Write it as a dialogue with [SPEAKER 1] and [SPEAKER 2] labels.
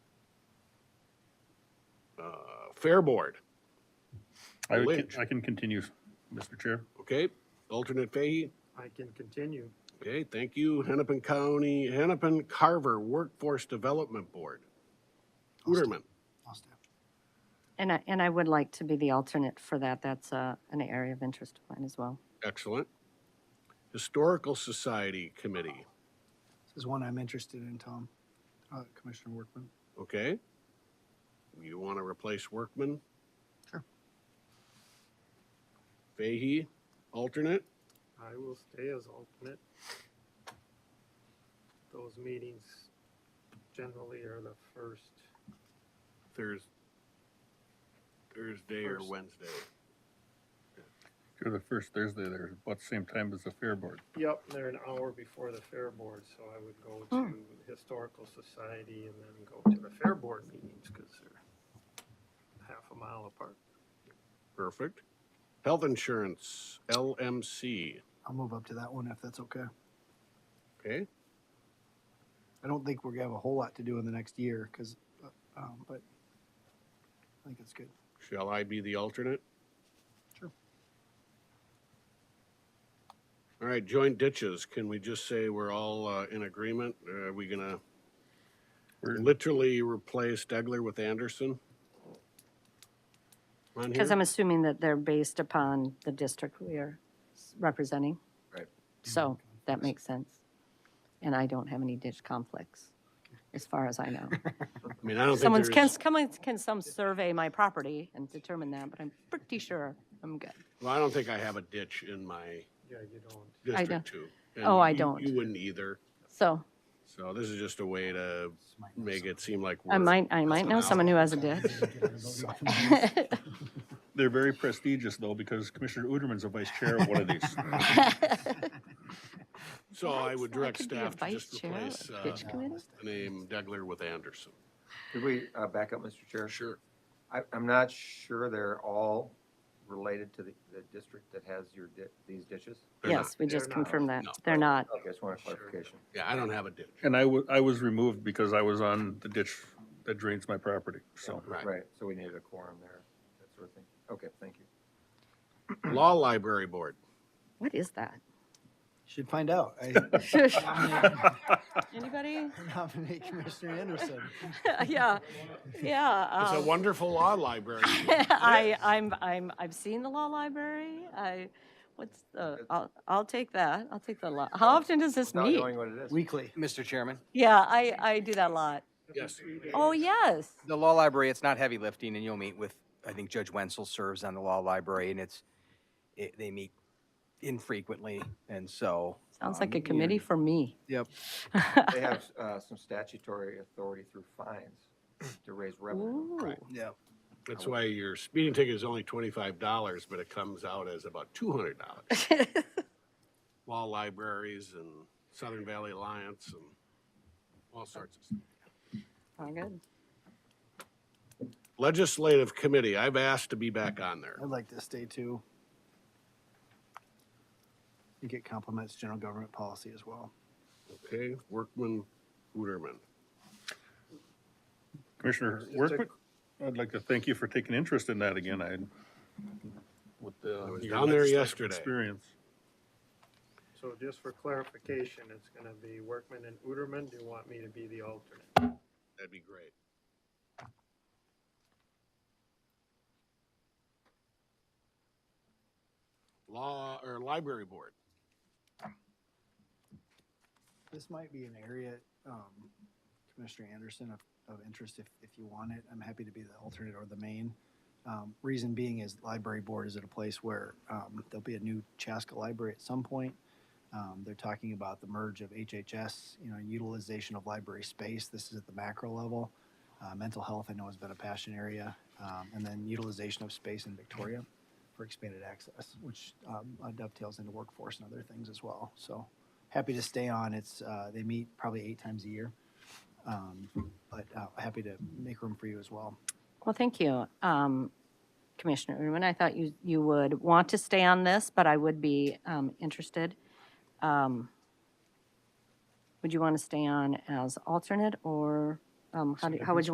[SPEAKER 1] uh, Fair Board,
[SPEAKER 2] I would
[SPEAKER 1] Lynch.
[SPEAKER 2] con- I can continue, Mr. Chair.
[SPEAKER 1] okay? Alternate Fahey,
[SPEAKER 3] I can continue.
[SPEAKER 1] okay, thank you. Hennepin County, Hennepin Carver Workforce Development Board. Hooterman,
[SPEAKER 4] I'll stay.
[SPEAKER 5] And I, and I would like to be the alternate for that. That's uh, an area of interest of mine as well.
[SPEAKER 1] excellent. Historical Society Committee,
[SPEAKER 4] This is one I'm interested in, Tom, Uh, Commissioner Workman.
[SPEAKER 1] okay? You want to replace Workman?
[SPEAKER 4] Sure.
[SPEAKER 1] Fahey, alternate?
[SPEAKER 3] I will stay as alternate. Those meetings generally are the first,
[SPEAKER 1] Thurs- Thursday or
[SPEAKER 3] First.
[SPEAKER 1] Wednesday.
[SPEAKER 2] Sure, the first Thursday there, about the same time as the Fair Board.
[SPEAKER 3] yep, they're an hour before the Fair Board, so I would go to the Historical Society and then go to the Fair Board meetings, because they're half a mile apart.
[SPEAKER 1] Perfect. Health Insurance, LMC,
[SPEAKER 4] I'll move up to that one if that's okay.
[SPEAKER 1] okay?
[SPEAKER 4] I don't think we're gonna have a whole lot to do in the next year, because, um, but I think it's good.
[SPEAKER 1] Shall I be the alternate?
[SPEAKER 4] Sure.
[SPEAKER 1] All right, joint ditches, can we just say we're all uh, in agreement? Uh, Are we gonna
[SPEAKER 2] We're-
[SPEAKER 1] literally replace Degler with Anderson? On
[SPEAKER 5] Because
[SPEAKER 1] here?
[SPEAKER 5] I'm assuming that they're based upon the district we are s- representing.
[SPEAKER 1] Right. Mm-hmm.
[SPEAKER 5] So that makes sense. And I don't have any ditch conflicts, as far as I know.
[SPEAKER 1] I mean, I don't
[SPEAKER 5] Someone's,
[SPEAKER 1] think
[SPEAKER 5] can,
[SPEAKER 1] there's,
[SPEAKER 5] someone can some survey my property and determine that, but I'm pretty sure I'm good.
[SPEAKER 1] well, I don't think I have a ditch in my
[SPEAKER 3] Yeah, you don't.
[SPEAKER 1] District Two. and
[SPEAKER 5] Oh, I
[SPEAKER 1] you-
[SPEAKER 5] don't.
[SPEAKER 1] You wouldn't either,
[SPEAKER 5] So
[SPEAKER 1] so this is just a way to make it seem like we're.
[SPEAKER 5] I might, I might know someone who has a ditch.
[SPEAKER 2] They're very prestigious though, because Commissioner Uderman's a vice chair of one of these.
[SPEAKER 1] So I would
[SPEAKER 5] I
[SPEAKER 1] direct
[SPEAKER 5] could be a
[SPEAKER 1] staff to
[SPEAKER 5] vice
[SPEAKER 1] just
[SPEAKER 5] chair of
[SPEAKER 1] replace,
[SPEAKER 5] the
[SPEAKER 1] uh,
[SPEAKER 5] ditch committee.
[SPEAKER 1] the name Degler with Anderson.
[SPEAKER 6] Could we uh, back up, Mr. Chair?
[SPEAKER 1] Sure.
[SPEAKER 6] I, I'm not sure they're all related to the, the district that has your, di- these ditches.
[SPEAKER 1] They're not.
[SPEAKER 5] Yes, we
[SPEAKER 3] They're
[SPEAKER 5] just
[SPEAKER 3] not.
[SPEAKER 5] confirmed that.
[SPEAKER 1] No.
[SPEAKER 5] They're not.
[SPEAKER 6] Okay, I just want a clarification.
[SPEAKER 1] Yeah, I don't have a ditch.
[SPEAKER 2] And I wa- I was removed because I was on the ditch that drains my property, so.
[SPEAKER 1] Right.
[SPEAKER 6] Right, so we needed a quorum there, that sort of thing. Okay, thank you.
[SPEAKER 1] Law Library Board.
[SPEAKER 5] What is that?
[SPEAKER 4] Should find out. I
[SPEAKER 5] Anybody?
[SPEAKER 4] nominate Commissioner Anderson.
[SPEAKER 5] Yeah, yeah.
[SPEAKER 1] It's a
[SPEAKER 5] um,
[SPEAKER 1] wonderful law library.
[SPEAKER 5] I, I'm, I'm, I've seen the law library. I, what's the, I'll, I'll take that. I'll take the law. How often does this
[SPEAKER 6] Without
[SPEAKER 5] meet?
[SPEAKER 6] knowing what it is.
[SPEAKER 4] Weekly.
[SPEAKER 7] Mr. Chairman,
[SPEAKER 5] Yeah, I, I do that a lot.
[SPEAKER 1] Yes.
[SPEAKER 5] Oh, yes.
[SPEAKER 7] the law library, it's not heavy lifting and you'll meet with, I think Judge Wenzel serves on the law library and it's, it, they meet infrequently and so.
[SPEAKER 5] Sounds
[SPEAKER 7] um,
[SPEAKER 5] like a
[SPEAKER 7] you're-
[SPEAKER 5] committee for me.
[SPEAKER 4] Yep.
[SPEAKER 6] They have uh, some statutory authority through fines to raise revenue.
[SPEAKER 5] Ooh,
[SPEAKER 4] Yeah.
[SPEAKER 1] That's why your speeding ticket is only twenty-five dollars, but it comes out as about two hundred dollars. Law libraries and Southern Valley Alliance and all sorts of stuff.
[SPEAKER 5] all good.
[SPEAKER 1] Legislative Committee, I've asked to be back on there.
[SPEAKER 4] I'd like to stay too. I think it complements general government policy as well.
[SPEAKER 1] Okay, Workman, Hooterman.
[SPEAKER 2] Commissioner Workman, I'd like to thank you for taking interest in that again. I, with the.
[SPEAKER 1] I was
[SPEAKER 2] your
[SPEAKER 1] down there
[SPEAKER 2] legislative
[SPEAKER 1] yesterday.
[SPEAKER 2] Experience.
[SPEAKER 3] So just for clarification, it's gonna be Workman and Uterman. Do you want me to be the alternate?
[SPEAKER 1] That'd be great. Law or Library Board.
[SPEAKER 4] This might be an area, um, Commissioner Anderson, of, of interest if, if you want it. I'm happy to be the alternate or the main. Um, reason being is library board is at a place where, um, there'll be a new Chaska library at some point. Um, they're talking about the merge of HHS, you know, utilization of library space. This is at the macro level. Uh, mental health, I know has been a passion area, um, and then utilization of space in Victoria for expanded access, which, um, dovetails into workforce and other things as well. So, happy to stay on. It's, uh, they meet probably eight times a year. Um, but, uh, happy to make room for you as well.
[SPEAKER 5] Well, thank you, um, Commissioner Urban. I thought you, you would want to stay on this, but I would be um, interested. Um, Would you want to stay on as alternate, or um, how do- how would you